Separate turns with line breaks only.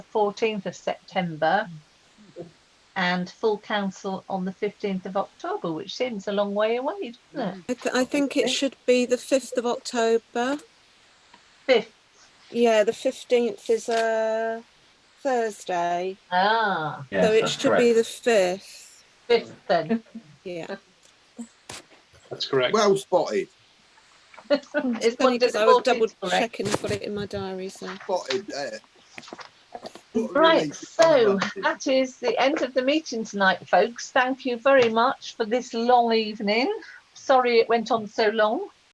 14th of September and full council on the 15th of October, which seems a long way away, doesn't
I, th- I think it should be the 5th of October.
it? 5th.
Yeah, the 15th is a Thursday,
Ah,
Yes,
so it
that's
should be the 5th.
5th then.
Yeah,
That's correct.
Well spotted,
It's
funny because I was double
14th, correct?
checking, I've got it in my diary. So
spotted eh. there. What a
Right,
relief.
so that is the end of the meeting tonight, folks. Thank you very much for this long evening. Sorry it went on so long.